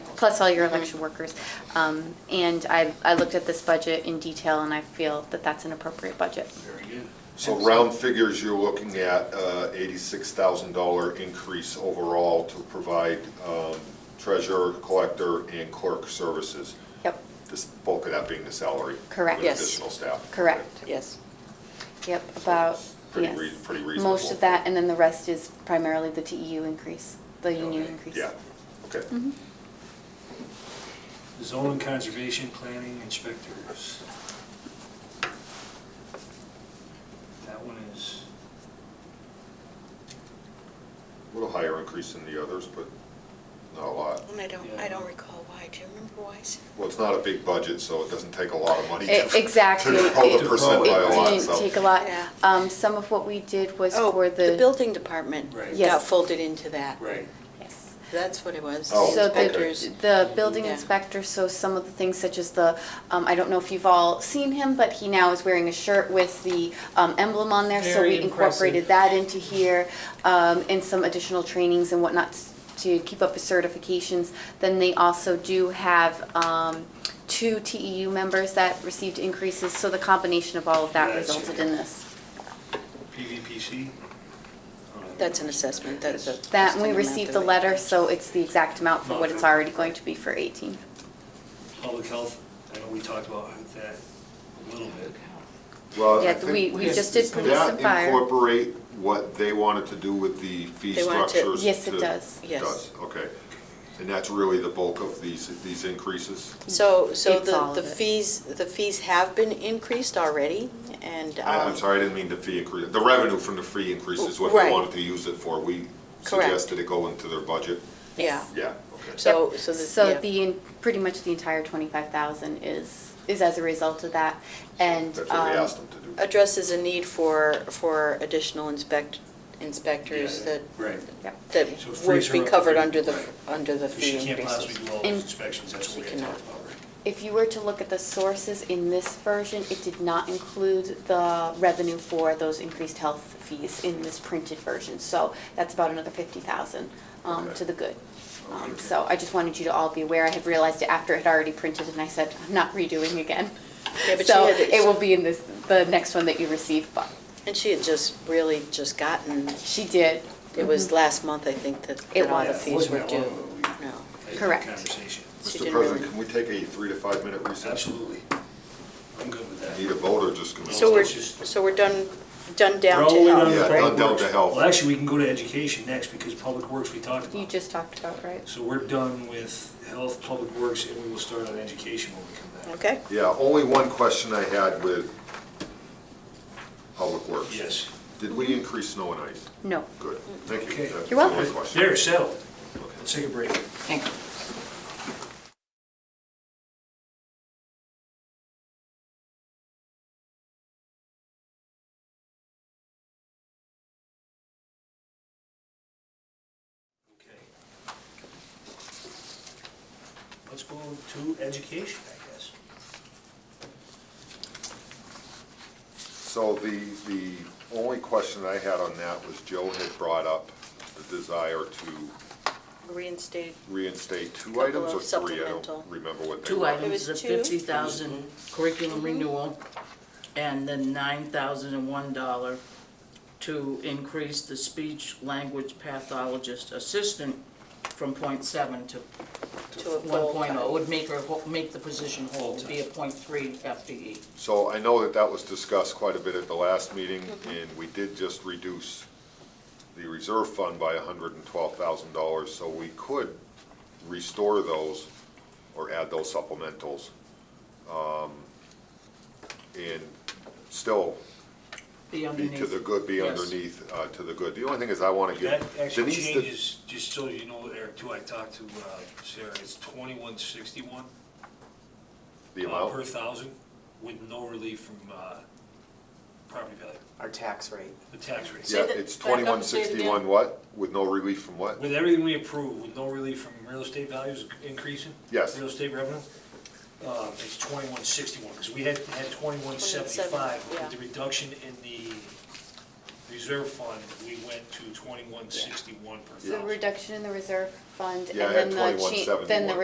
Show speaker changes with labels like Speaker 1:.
Speaker 1: plus all your election workers. Um, And I, I looked at this budget in detail, and I feel that that's an appropriate budget.
Speaker 2: Very good.
Speaker 3: So round figures, you're looking at uh, $86,000 increase overall to provide um, treasurer, collector, and clerk services.
Speaker 1: Yep,
Speaker 3: This bulk of that being the salary.
Speaker 1: Correct.
Speaker 3: With
Speaker 4: Yes.
Speaker 3: additional staff.
Speaker 1: correct.
Speaker 4: Yes.
Speaker 1: Yep, about,
Speaker 3: Pretty
Speaker 1: yes.
Speaker 3: rea- pretty
Speaker 1: Most
Speaker 3: reasonable.
Speaker 1: of that, and then the rest is primarily the TEU increase, the union
Speaker 2: Okay,
Speaker 1: increase.
Speaker 3: Yeah, okay.
Speaker 2: Zone conservation planning inspectors. That one is,
Speaker 3: A little higher increase than the others, but not a lot.
Speaker 5: And I don't, I don't recall why. Do you remember why? Sarah?
Speaker 3: Well, it's not a big budget, so it doesn't take a lot of money.
Speaker 1: E-
Speaker 3: to-
Speaker 1: exactly.
Speaker 3: To pull
Speaker 2: It-
Speaker 3: the percent
Speaker 2: it-
Speaker 3: by a lot,
Speaker 1: Didn't
Speaker 3: so.
Speaker 1: take a lot.
Speaker 5: Yeah.
Speaker 1: Um, Some of what we did was
Speaker 4: Oh,
Speaker 1: for
Speaker 4: The building department
Speaker 2: Right.
Speaker 4: got
Speaker 1: Yes.
Speaker 4: folded into that.
Speaker 2: right,
Speaker 1: Yes.
Speaker 4: That's what it was.
Speaker 3: Oh,
Speaker 1: So
Speaker 3: okay.
Speaker 4: Inspectors.
Speaker 1: the, the building
Speaker 4: Yeah.
Speaker 1: inspector, so some of the things such as the, um, I don't know if you've all seen him, but he now is wearing a shirt with the, um, emblem on there, so
Speaker 6: Very
Speaker 1: we incorporated
Speaker 6: impressive.
Speaker 1: that into here, um, and some additional trainings and whatnot s- to keep up his certifications. Then they also do have, um, two TEU members that received increases, so the combination of all of that
Speaker 2: Yeah, I see.
Speaker 1: resulted in this.
Speaker 2: PVPC. Uh,
Speaker 4: That's an assessment, that's a.
Speaker 1: That,
Speaker 4: just
Speaker 1: and we
Speaker 4: an amount
Speaker 1: received the
Speaker 4: of it.
Speaker 1: letter, so it's the exact amount for what it's already going to be for eighteen.
Speaker 2: Public health, I know we talked about that a little bit.
Speaker 3: Well, I
Speaker 1: Yeah,
Speaker 3: think
Speaker 1: we, we just did police
Speaker 3: That
Speaker 1: and fire.
Speaker 3: incorporate what they wanted to do with the fee
Speaker 4: They wanted to-
Speaker 3: structures?
Speaker 1: Yes, it
Speaker 3: to-
Speaker 1: does.
Speaker 4: Yes.
Speaker 3: Does, okay. And that's really the bulk of these, these increases?
Speaker 4: So, so
Speaker 1: It's all of
Speaker 4: the, the
Speaker 1: it.
Speaker 4: fees, the fees have been increased already and.
Speaker 2: Oh,
Speaker 3: I- I'm
Speaker 4: um,
Speaker 3: sorry, I didn't mean the fee increase, the revenue from the fee increase is what they
Speaker 4: Right.
Speaker 3: wanted to use it for. We
Speaker 4: Correct.
Speaker 3: suggested it go into their budget.
Speaker 4: Yeah,
Speaker 3: Yeah, okay.
Speaker 4: so,
Speaker 1: Yep.
Speaker 4: so the. yeah.
Speaker 1: So the, en- pretty much the entire twenty-five thousand is, is as a result of that, and,
Speaker 3: That's what we
Speaker 1: um,
Speaker 3: asked them to do.
Speaker 4: Addresses a need for, for additional inspect, inspectors
Speaker 2: Yeah,
Speaker 4: that,
Speaker 2: Right.
Speaker 1: yep.
Speaker 4: that
Speaker 2: So frees
Speaker 4: would
Speaker 2: her
Speaker 4: be
Speaker 2: up to
Speaker 4: covered
Speaker 2: do-
Speaker 4: under the,
Speaker 2: right.
Speaker 4: under the
Speaker 2: Because she
Speaker 4: fee
Speaker 2: can't possibly
Speaker 4: increases.
Speaker 2: do all those
Speaker 1: And-
Speaker 2: inspections, that's
Speaker 4: She
Speaker 2: what we had
Speaker 4: cannot.
Speaker 2: talked about, right?
Speaker 1: If you were to look at the sources in this version, it did not include the revenue for those increased health fees in this printed version, so that's about another fifty thousand, um,
Speaker 3: Okay.
Speaker 1: to the good. Um,
Speaker 2: Okay.
Speaker 1: so I just wanted you to all be aware, I had realized it after it had already printed, and I said, I'm not redoing again.
Speaker 4: Yeah, but she
Speaker 1: So
Speaker 4: had it-
Speaker 1: it will be in this, the next one that you receive, but
Speaker 4: And she had just really just gotten,
Speaker 1: she did,
Speaker 4: it was last month, I think, that,
Speaker 1: Mm-hmm. It
Speaker 4: that all the
Speaker 1: was.
Speaker 4: fees
Speaker 2: Wasn't Oh.
Speaker 4: were
Speaker 2: that
Speaker 4: due.
Speaker 2: long ago we-
Speaker 4: No.
Speaker 2: Had that
Speaker 1: Correct.
Speaker 2: Conversation.
Speaker 4: she
Speaker 3: Mr.
Speaker 4: didn't
Speaker 3: President,
Speaker 4: really-
Speaker 3: can we take a three to five minute recess?
Speaker 2: Absolutely. I'm good with that.
Speaker 3: Need a vote or just? can we-
Speaker 4: So we're,
Speaker 2: it's just-
Speaker 4: so we're done, done down
Speaker 2: We're all
Speaker 4: to
Speaker 2: the way
Speaker 4: health.
Speaker 2: to
Speaker 3: Yeah,
Speaker 2: Public
Speaker 3: down to
Speaker 2: Works.
Speaker 3: health.
Speaker 2: Well, actually, we can go to education next because Public Works we talked about.
Speaker 1: you just talked about, right?
Speaker 2: So we're done with health, public works, and we will start on education when we come back.
Speaker 4: Okay,
Speaker 3: Yeah, only one question I had with Public Works.
Speaker 2: Yes,
Speaker 3: Did we increase snow and ice?
Speaker 1: No.
Speaker 3: Good, thank you.
Speaker 2: Okay.
Speaker 3: That's
Speaker 1: You're welcome.
Speaker 3: the only question.
Speaker 2: there, settled.
Speaker 3: Okay.
Speaker 2: Let's take a break.
Speaker 4: thank you.
Speaker 2: Okay. Let's go to education, I guess.
Speaker 3: So the, the only question I had on that was Joe had brought up the desire to
Speaker 4: Reinstated
Speaker 3: reinstate two
Speaker 4: Couple
Speaker 3: items or
Speaker 4: of
Speaker 3: three, I
Speaker 4: supplemental.
Speaker 3: don't remember what they
Speaker 6: Two
Speaker 3: were.
Speaker 6: items, the
Speaker 4: was two? Mm-hmm.
Speaker 6: fifty thousand curriculum renewal, and then nine thousand and one dollar to increase the speech language pathologist assistant from point seven to
Speaker 4: to a
Speaker 6: one
Speaker 4: full
Speaker 6: point
Speaker 4: time.
Speaker 6: oh, would make her, whole- make the position whole, be a point three E. FTE.
Speaker 3: So I know that that was discussed quite a bit at the last meeting,
Speaker 4: Mm-hmm.
Speaker 3: and we did just reduce the reserve fund by hundred and twelve thousand dollars, so we could restore those or add those supplementals. um, And still
Speaker 6: Be
Speaker 3: be
Speaker 6: underneath.
Speaker 3: to the good, be
Speaker 6: Yes.
Speaker 3: underneath, uh, to the good. The only thing is I want to
Speaker 2: That
Speaker 3: give Denise the.
Speaker 2: actual change is, just so you know, Eric, too, I talked to uh, Sarah, it's twenty-one sixty-one
Speaker 3: The
Speaker 2: Uh, per
Speaker 3: amount?
Speaker 2: thousand with no relief from uh, property value,
Speaker 7: our tax rate.
Speaker 2: the tax rate.
Speaker 3: Yeah,
Speaker 6: that-
Speaker 3: it's
Speaker 6: back up and
Speaker 3: twenty-one
Speaker 6: say it again.
Speaker 3: sixty-one what? With no relief from what?
Speaker 2: With everything we approve, with no relief from real estate values increasing?
Speaker 3: Yes.
Speaker 2: Real estate revenue? Uh, it's twenty-one sixty-one, because we had, had twenty-one seventy-five.
Speaker 4: 21.75, yeah.
Speaker 2: With the reduction in the reserve fund, we went to twenty-one sixty-one per
Speaker 1: The
Speaker 2: thousand.
Speaker 1: reduction in the reserve fund,
Speaker 3: Yeah, I
Speaker 1: and then the,
Speaker 3: had
Speaker 1: cha- then the
Speaker 3: 21.71.